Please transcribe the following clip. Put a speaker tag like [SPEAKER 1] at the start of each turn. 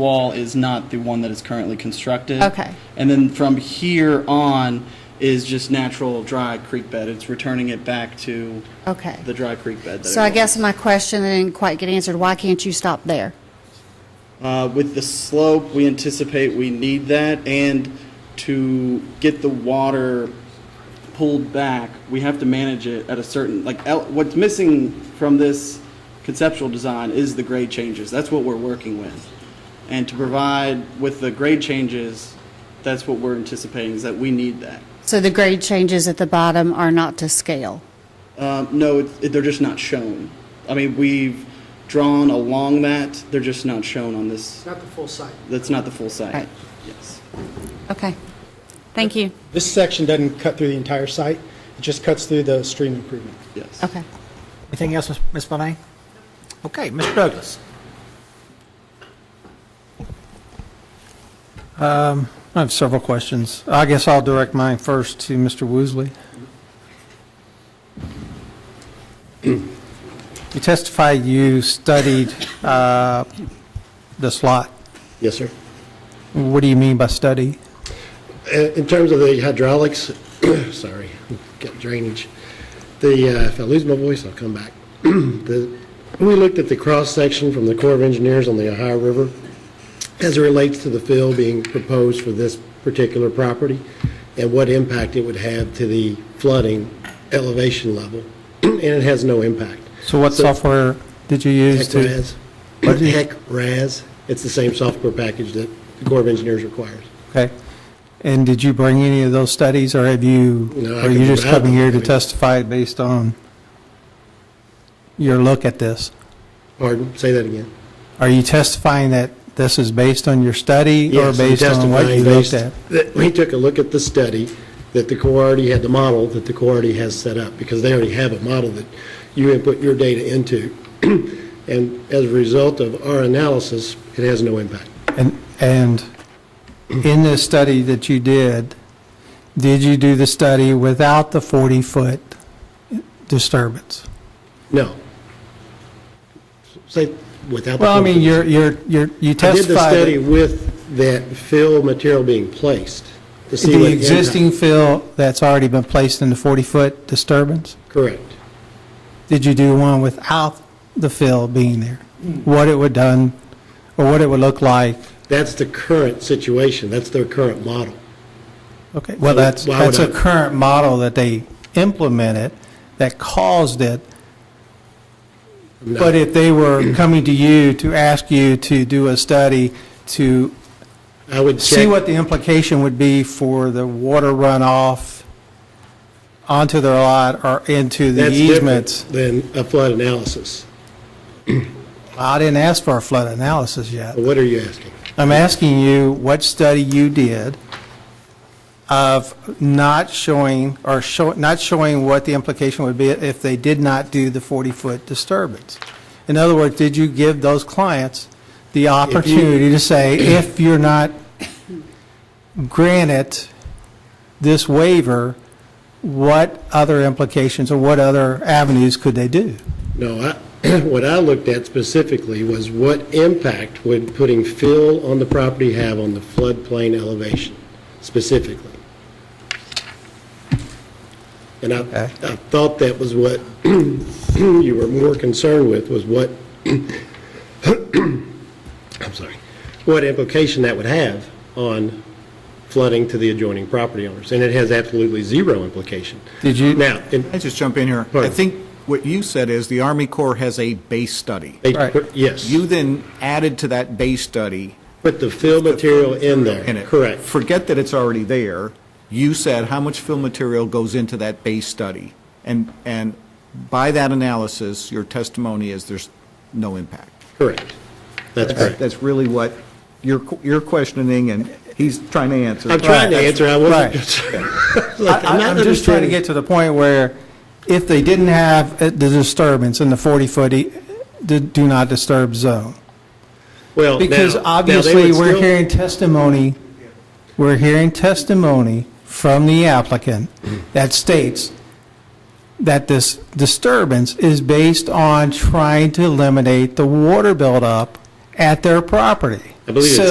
[SPEAKER 1] wall is not the one that is currently constructed.
[SPEAKER 2] Okay.
[SPEAKER 1] And then from here on is just natural dry creek bed. It's returning it back to
[SPEAKER 2] Okay.
[SPEAKER 1] the dry creek bed. that
[SPEAKER 2] So I
[SPEAKER 1] it
[SPEAKER 2] guess
[SPEAKER 1] was.
[SPEAKER 2] my question that didn't quite get answered, why can't you stop there?
[SPEAKER 1] Uh, with the slope, we anticipate we need that, and to get the water pulled back, we have to manage it at a certain, like, el- what's missing from this conceptual design is the grade changes. That's what we're working with. And to provide with the grade changes, that's what we're anticipating, is that we need that.
[SPEAKER 2] So the grade changes at the bottom are not to scale.
[SPEAKER 1] Um, no, it, it- they're just not shown. I mean, we've drawn along that, they're just not shown on this,
[SPEAKER 3] Not the full site.
[SPEAKER 1] that's not the full site.
[SPEAKER 2] Right.
[SPEAKER 1] Yes.
[SPEAKER 2] Okay. Thank you.
[SPEAKER 3] This section doesn't cut through the entire site, it just cuts through the stream improvement.
[SPEAKER 1] Yes.
[SPEAKER 2] Okay.
[SPEAKER 4] Anything else, Ms. Ms. Bonet? Okay, Mr. Douglas.
[SPEAKER 5] Um, I have several questions. I guess I'll direct mine first to Mr. Woosley. You testify you studied uh, this lot.
[SPEAKER 6] Yes, sir.
[SPEAKER 5] What do you mean by study?
[SPEAKER 6] Uh, In terms of the hydraulics, sorry, got drainage, the, uh, if I lose my voice, I'll come back. The- We looked at the cross-section from the Corps of Engineers on the Ohio River as it relates to the fill being proposed for this particular property and what impact it would have to the flooding elevation level, and it has no impact.
[SPEAKER 5] So what software did you use
[SPEAKER 6] Heck
[SPEAKER 5] to?
[SPEAKER 6] Raz. Heck Raz, it's the same software package that the Corps of Engineers requires.
[SPEAKER 5] Okay. And did you bring any of those studies, or have you,
[SPEAKER 6] No, I
[SPEAKER 5] or are
[SPEAKER 6] can
[SPEAKER 5] you just
[SPEAKER 6] provide
[SPEAKER 5] coming here
[SPEAKER 6] them.
[SPEAKER 5] to testify based on your look at this?
[SPEAKER 6] Pardon, say that again.
[SPEAKER 5] Are you testifying that this is based on your study
[SPEAKER 6] Yes,
[SPEAKER 5] or
[SPEAKER 6] I'm
[SPEAKER 5] based on what
[SPEAKER 6] testifying
[SPEAKER 5] you looked
[SPEAKER 6] based-
[SPEAKER 5] at?
[SPEAKER 6] that We took a look at the study that the Corps already had, the model that the Corps already has set up, because they already have a model that you input your data into. And as a result of our analysis, it has no impact.
[SPEAKER 5] And, and in this study that you did, did you do the study without the 40-foot disturbance?
[SPEAKER 6] No. Say, without the...
[SPEAKER 5] Well, I mean,
[SPEAKER 6] focus.
[SPEAKER 5] you're, you're, you're- you
[SPEAKER 6] I did the
[SPEAKER 5] testified
[SPEAKER 6] study
[SPEAKER 5] that
[SPEAKER 6] with that fill material being placed to see
[SPEAKER 5] the
[SPEAKER 6] what... impact-
[SPEAKER 5] existing fill that's already been placed in the 40-foot disturbance?
[SPEAKER 6] Correct.
[SPEAKER 5] Did you do one without the fill being there?
[SPEAKER 6] Hmm.
[SPEAKER 5] What it would done, or what it would look like?
[SPEAKER 6] That's the current situation. That's their current model.
[SPEAKER 5] Okay, well, that's,
[SPEAKER 6] Why would
[SPEAKER 5] that's a
[SPEAKER 6] I-
[SPEAKER 5] current model that they implemented that caused it.
[SPEAKER 6] No.
[SPEAKER 5] But if they were coming to you to ask you to do a study to
[SPEAKER 6] I would check...
[SPEAKER 5] see what the implication would be for the water runoff onto their lot or into the
[SPEAKER 6] That's different
[SPEAKER 5] easements.
[SPEAKER 6] Than a flood analysis.
[SPEAKER 5] I didn't ask for a flood analysis yet.
[SPEAKER 6] What are you asking?
[SPEAKER 5] I'm asking you what study you did of not showing, or show, not showing what the implication would be if they did not do the 40-foot disturbance. In other words, did you give those clients the opportunity to say, if you're not granted this waiver, what other implications or what other avenues could they do?
[SPEAKER 6] No, I, what I looked at specifically was what impact would putting fill on the property have on the floodplain elevation specifically? And I,
[SPEAKER 5] Okay.
[SPEAKER 6] I thought that was what you were more concerned with, was what, I'm sorry, what implication that would have on flooding to the adjoining property owners. And it has absolutely zero implication.
[SPEAKER 5] Did you-
[SPEAKER 6] Now, in-
[SPEAKER 4] Can I just jump in here? I
[SPEAKER 6] Pardon.
[SPEAKER 4] think what you said is the Army Corps has a base study.
[SPEAKER 6] they-
[SPEAKER 5] Right.
[SPEAKER 6] yes.
[SPEAKER 4] You then added to that base study
[SPEAKER 6] Put the fill material in there.
[SPEAKER 4] in it.
[SPEAKER 6] Correct.
[SPEAKER 4] Forget that it's already there. You said how much fill material goes into that base study. And, and by that analysis, your testimony is there's no impact.
[SPEAKER 6] Correct. That's correct.
[SPEAKER 4] That's really what you're, you're questioning and he's trying to answer.
[SPEAKER 6] I'm trying to
[SPEAKER 5] Right.
[SPEAKER 6] answer, I wasn't. Look,
[SPEAKER 5] I- I'm just trying to
[SPEAKER 6] understanding-
[SPEAKER 5] get to the point where if they didn't have uh, the disturbance in the 40-foot do not disturb zone.
[SPEAKER 6] Well, now-
[SPEAKER 5] Because
[SPEAKER 6] now they
[SPEAKER 5] obviously,
[SPEAKER 6] would
[SPEAKER 5] we're
[SPEAKER 6] still-
[SPEAKER 5] hearing testimony, we're hearing testimony from the applicant that states that this disturbance is based on trying to eliminate the water buildup at their property.
[SPEAKER 6] I believe it's
[SPEAKER 5] So-